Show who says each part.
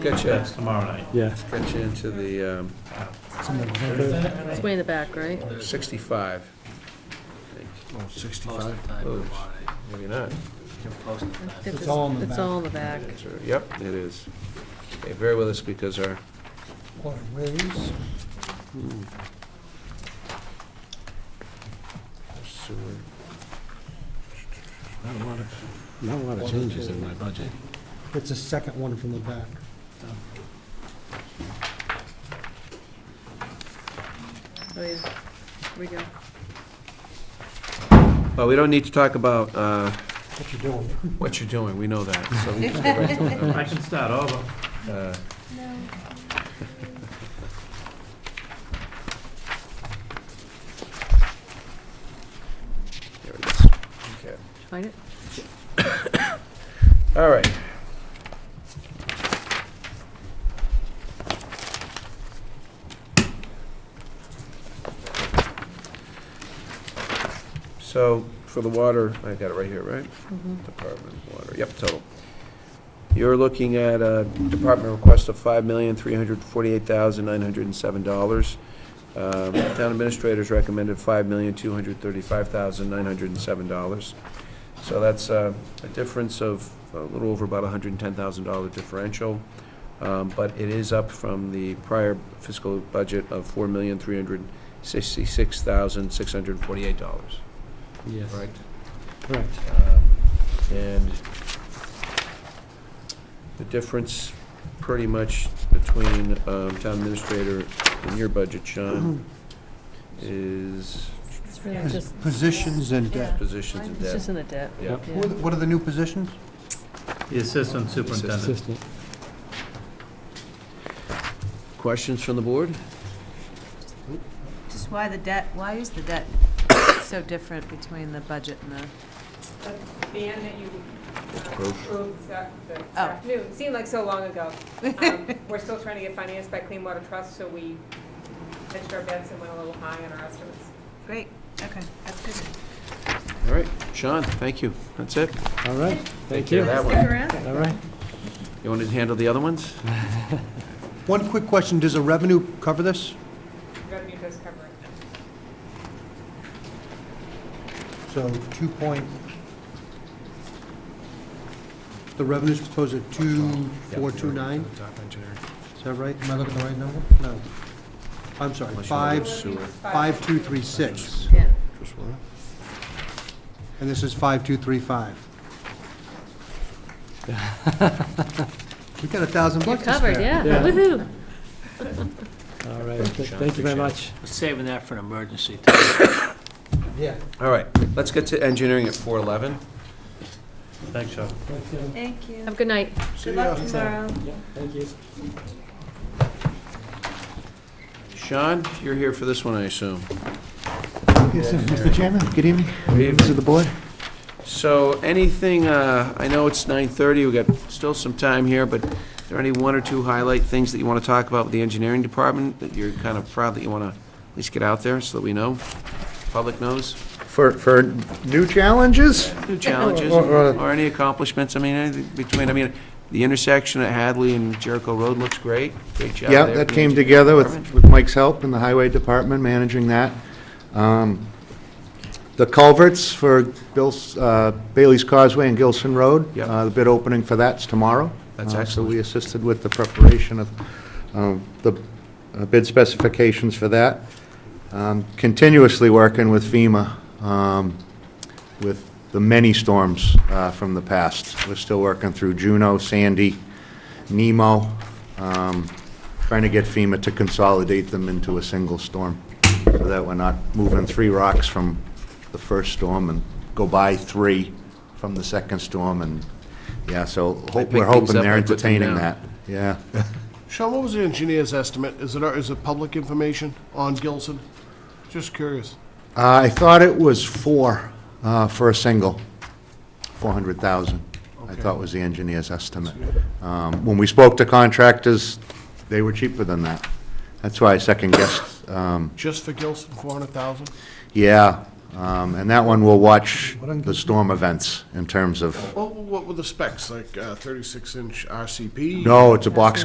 Speaker 1: Get you,
Speaker 2: That's tomorrow night.
Speaker 3: Yeah.
Speaker 1: get you into the um,
Speaker 4: It's way in the back, right?
Speaker 1: 65.
Speaker 5: Oh, 65.
Speaker 1: Oh, Maybe not.
Speaker 4: It's
Speaker 5: all in the
Speaker 4: It's
Speaker 5: back.
Speaker 4: all in the back.
Speaker 1: Sure, Yep, it is. Okay, bear with us because our,
Speaker 5: What, where is?
Speaker 1: sewer-
Speaker 3: Not a lot of, not a lot of changes in my budget.
Speaker 5: It's the second one from the back.
Speaker 4: Oh, yeah. Here we go.
Speaker 1: well, we don't need to talk about uh,
Speaker 5: What you doing?
Speaker 1: what you're doing, we know that. So we can go right to the
Speaker 2: I
Speaker 1: numbers.
Speaker 2: can start over.
Speaker 1: Uh, There it is. Okay.
Speaker 4: Find it?
Speaker 1: All right. So for the water, I got it right here, right?
Speaker 4: Mm-hmm.
Speaker 1: Department water, yep, total. You're looking at a department request of five million, three hundred forty-eight thousand, nine hundred and seven dollars. Um, Town administrators recommended five million, two hundred thirty-five thousand, nine hundred and seven dollars. So that's uh, a difference of a little over about $110,000 differential, um, but it is up from the prior fiscal budget of $4,366,648.
Speaker 3: Yes.
Speaker 1: Correct.
Speaker 3: Correct.
Speaker 1: Um, And the difference pretty much between um, town administrator and your budget, Sean, is
Speaker 4: It's really just,
Speaker 5: Positions and debt.
Speaker 1: positions and
Speaker 4: it's just in
Speaker 1: debt.
Speaker 4: the debt.
Speaker 1: Yeah.
Speaker 4: Yeah.
Speaker 5: What are the- what are the new positions?
Speaker 2: The assistant superintendent.
Speaker 3: Consistent.
Speaker 1: Questions from the board?
Speaker 6: Just why the debt, why is the debt so different between the budget and the,
Speaker 7: the ban that you uh,
Speaker 1: Approved.
Speaker 7: approved this af- this
Speaker 6: Oh.
Speaker 7: afternoon, seemed like so long ago. Um, We're still trying to get financed by Clean Water Trust, so we pitched our bets and went a little high on our estimates.
Speaker 6: great, okay, that's good.
Speaker 1: All right, Sean, thank you. That's it.
Speaker 3: All right, thank
Speaker 1: Yeah,
Speaker 3: you.
Speaker 1: that one.
Speaker 6: Stick around.
Speaker 3: All right.
Speaker 1: You want to handle the other ones?
Speaker 5: One quick question, does the revenue cover this?
Speaker 7: Revenue does cover it.
Speaker 5: So two point, the revenue's proposed at two, four, two, nine? Is that right? Am I looking at the right number? No. I'm sorry,
Speaker 1: Unless you
Speaker 5: five,
Speaker 1: want Sewer.
Speaker 5: five, two, three, six.
Speaker 4: Yeah.
Speaker 1: Just one.
Speaker 5: And this is five, two, three, five. We got a thousand
Speaker 4: You're
Speaker 5: bucks to spare.
Speaker 4: covered, yeah.
Speaker 3: Yeah.
Speaker 4: Woohoo.
Speaker 3: All right,
Speaker 1: Thank you, Sean.
Speaker 3: thank you very
Speaker 1: Appreciate it.
Speaker 3: much.
Speaker 8: Saving that for an emergency.
Speaker 5: Yeah.
Speaker 1: All right, let's get to engineering at 411.
Speaker 2: Thanks, Sean.
Speaker 6: Thank you.
Speaker 4: Have a good night.
Speaker 6: Good luck tomorrow.
Speaker 3: Yeah, thank you.
Speaker 1: Sean, you're here for this one, I assume.
Speaker 9: Yes, Mr. Chairman, good evening. Members of the board.
Speaker 1: So anything, uh, I know it's 9:30, we got still some time here, but are there any one or two highlight things that you want to talk about with the engineering department that you're kind of proud that you want to at least get out there so that we know, public knows,
Speaker 9: For, for new challenges?
Speaker 1: new challenges
Speaker 9: Or- or-
Speaker 1: or any accomplishments? I mean, anything between, I mean, the intersection at Hadley and Jericho Road looks great. Great job
Speaker 9: Yeah,
Speaker 1: there
Speaker 9: that
Speaker 1: from the
Speaker 9: came
Speaker 1: engineering
Speaker 9: together
Speaker 1: department.
Speaker 9: with, with Mike's help in the highway department, managing that. Um, The culverts for Bill's, uh, Bailey's Causeway and Gilson Road.
Speaker 1: Yep.
Speaker 9: uh, The bid opening for that's tomorrow.
Speaker 1: That's
Speaker 9: Uh,
Speaker 1: excellent.
Speaker 9: So we assisted with the preparation of um, the uh, bid specifications for that. Um, Continuously working with FEMA um, with the many storms uh, from the past. We're still working through Juno, Sandy, Nemo, um, trying to get FEMA to consolidate them into a single storm, so that we're not moving three rocks from the first storm and go by three from the second storm, and, yeah, so ho-
Speaker 1: They pick
Speaker 9: we're
Speaker 1: things
Speaker 9: hoping
Speaker 1: up
Speaker 9: they're
Speaker 1: and put them
Speaker 9: entertaining
Speaker 1: down.
Speaker 9: that. Yeah.
Speaker 10: Sean, what was the engineer's estimate? Is it, is it public information on Gilson? Just curious.
Speaker 9: Uh, I thought it was four uh, for a single, 400,000, I
Speaker 10: Okay.
Speaker 9: thought was the engineer's estimate. Um, When we spoke to contractors, they were cheaper than that. That's why I second-guessed. um,
Speaker 10: Just for Gilson, four hundred thousand?
Speaker 9: Yeah, um, and that one will watch the storm events in terms of,
Speaker 10: Well, what were the specs, like thirty-six inch RCP?
Speaker 9: no, it's a box